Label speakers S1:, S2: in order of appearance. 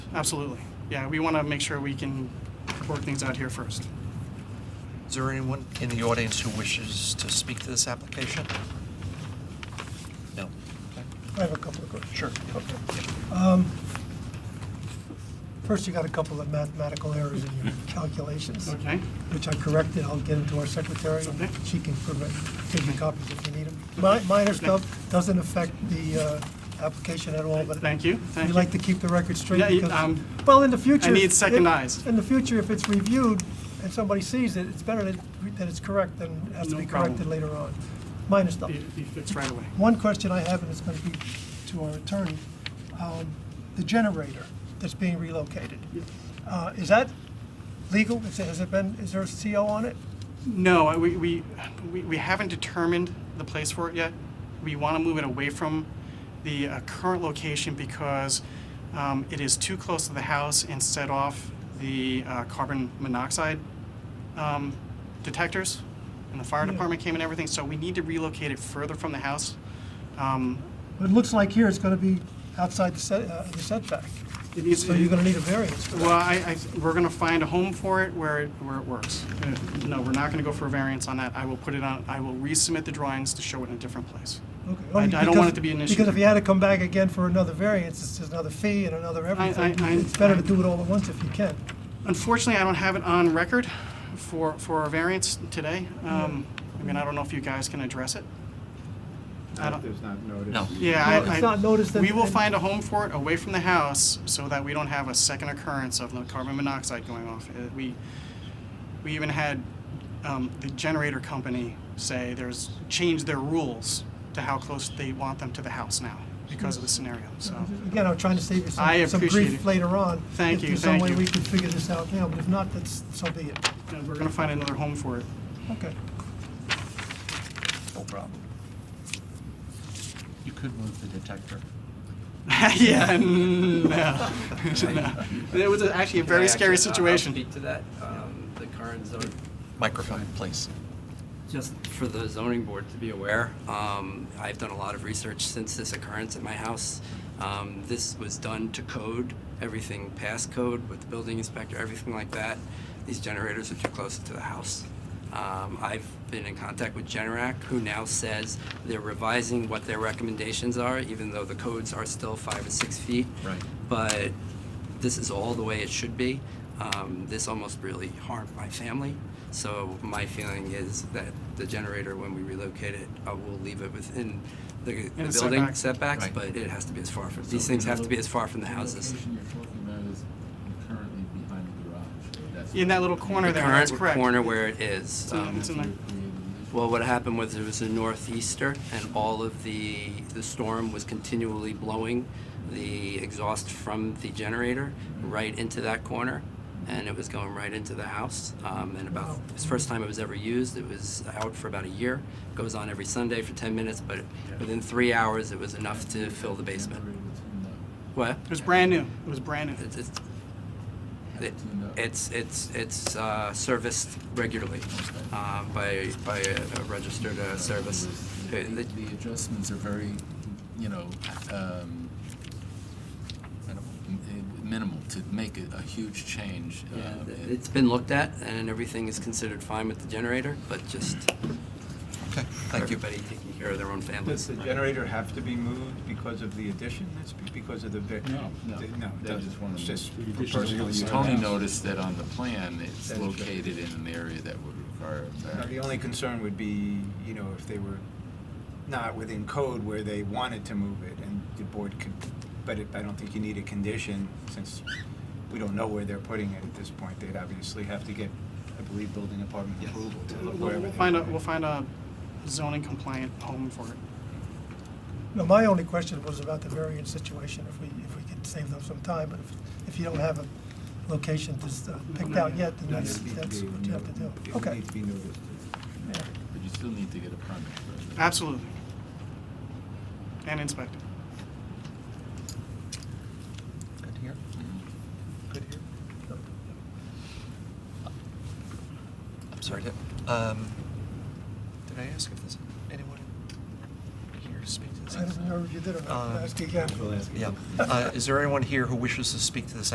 S1: Absolutely. Yeah, we want to make sure we can work things out here first.
S2: Is there anyone in the audience who wishes to speak to this application? No?
S3: I have a couple of questions.
S2: Sure.
S3: Um, First, you got a couple of mathematical errors in your calculations,
S1: Okay?
S3: which I corrected. I'll get them to our secretary.
S1: Okay.
S3: She can correct, give you copies if you need them. Mi- Minor stuff doesn't affect the uh, application at all, but.
S1: Thank you, thank
S3: We
S1: you.
S3: like to keep the record straight
S1: Yeah, you-
S3: because,
S1: um,
S3: well, in the future.
S1: I need
S3: if-
S1: second eyes.
S3: In the future, if it's reviewed and somebody sees it, it's better that it- that it's correct than it has to
S1: No
S3: be
S1: problem.
S3: corrected later on. Minor stuff.
S1: Be be fixed right away.
S3: One question I have, and it's going to be to our attorney, um, the generator that's being relocated, uh, is that legal? Is it- Has it been, is there a CO on it?
S1: No, I- we, we, we we haven't determined the place for it yet. We want to move it away from the uh, current location because um, it is too close to the house and set off the uh, carbon monoxide um, detectors. And the fire
S3: Yeah.
S1: department came and everything, so we need to relocate it further from the house. Um,
S3: But it looks like here it's going to be outside the set- uh, the setback,
S1: It needs,
S3: so you're going to need a variance for
S1: Well,
S3: that.
S1: I, I, we're gonna find a home for it where, it where it works. Uh, No, we're not gonna go for a variance on that. I will put it on, I will resubmit the drawings to show it in a different place.
S3: Okay.
S1: I- I
S3: Only
S1: don't want
S3: because-
S1: it to be an issue.
S3: Because if you had to come back again for another variance, it's just another fee and another everything.
S1: I-
S3: It's better to
S1: I-
S3: do it all at once if you can.
S1: Unfortunately, I don't have it on record for, for a variance today. Um, I mean, I don't know if you guys can address it. I
S4: Not
S1: don't-
S4: if there's not
S2: No.
S4: notice.
S1: Yeah,
S3: No,
S1: I,
S3: it's
S1: I-
S3: not noticed
S1: We
S3: and-
S1: will
S3: and-
S1: find a home for it away from the house so that we don't have a second occurrence of the carbon monoxide going off. Uh, We, we even had um, the generator company say there's, change their rules to how close they want them to the house now because of the scenario, so.
S3: Again, I'm trying to save you
S1: I
S3: some some
S1: appreciate
S3: grief
S1: it.
S3: later on.
S1: Thank you,
S3: If there's some
S1: thank
S3: way
S1: you.
S3: we can figure this out now, but if not, that's, so be it.
S1: And we're gonna find another home for it.
S3: Okay.
S2: No problem. You could move the detector.
S1: Yeah, no. No. It was actually a very
S5: Can
S1: scary
S5: I actually- uh, I'll- I'll
S1: situation.
S5: speak to that, um, the current zone,
S2: Microphone, please.
S5: just for the zoning board to be aware, um, I've done a lot of research since this occurrence at my house. Um, This was done to code, everything past code with the building inspector, everything like that. These generators are too close to the house. Um, I've been in contact with Generac, who now says they're revising what their recommendations are, even though the codes are still five and six feet.
S2: Right.
S5: But this is all the way it should be. Um, this almost really harmed my family. So my feeling is that the generator, when we relocate it, uh, we'll leave it within the, the
S1: the
S5: building
S1: setback.
S5: setbacks,
S2: Right.
S5: but it has to be as far from, these things have to be as far from the
S6: The
S5: houses.
S6: location you're talking about is currently behind the garage. That's
S1: In that little corner
S5: The
S1: there, that's
S5: current
S1: correct.
S5: corner where it is.
S1: in-
S5: um,
S1: it's in the-
S5: Well, what happened was it was a northeaster, and all of the the storm was continually blowing the exhaust from the generator right into that corner, and it was going right into the house. Um, and about
S3: Wow.
S5: it was the first time it was ever used. It was out for about a year. Goes on every Sunday for ten minutes, but within three hours, it was enough to fill the basement. What?
S1: It was brand new. It was brand new.
S5: It's it's it- it's it's, it's uh, serviced regularly um, by by a a registered uh, service. Uh,
S6: The
S5: the-
S6: the adjustments are very, you know, um, minimal- minimal to make a a huge change.
S5: Yeah,
S6: uh,
S5: th- It's been looked at, and everything is considered fine with the generator, but just
S2: Okay,
S5: for
S2: thank you.
S5: everybody taking care of their own
S4: Does
S5: families.
S4: the generator have to be moved because of the addition, That's be- because of the... ve-
S6: No, no.
S4: Th- No, it
S6: They
S4: doesn't.
S6: just wanna
S4: It's just
S6: move
S4: for personal use.
S6: Tony noticed that on the plan, it's
S4: That's right.
S6: located in an area that would require a
S4: Now, The
S6: variance.
S4: only concern would be, you know, if they were not within code where they wanted to move it, and the board could, but it- I don't think you need a condition, since we don't know where they're putting it at this point. They'd obviously have to get, I believe, building department approval to
S1: We'll-
S4: wherever
S1: We'll
S4: they
S1: find a,
S4: put it.
S1: we'll find a zoning compliant home for it.
S3: No, my only question was about the variance situation, if we, if we could save them some time, but if, if you don't have a location just uh, picked out yet, then
S4: No,
S3: that's,
S4: it'd be-
S3: that's
S4: be
S3: what you have to do.
S4: noted. It would
S3: Okay.
S4: need to be noticed.
S3: Yeah.
S6: But you still need to get a permit for that.
S1: Absolutely. And inspect it.
S2: Good here.
S6: Mm-hmm.
S2: I'm sorry, did, um, did I ask if there's anyone here to speak to this?
S3: I don't remember if you did or not,
S2: Um,
S3: ask again.
S4: We'll ask you.
S2: Yeah. Uh, Is there anyone here who wishes to speak to this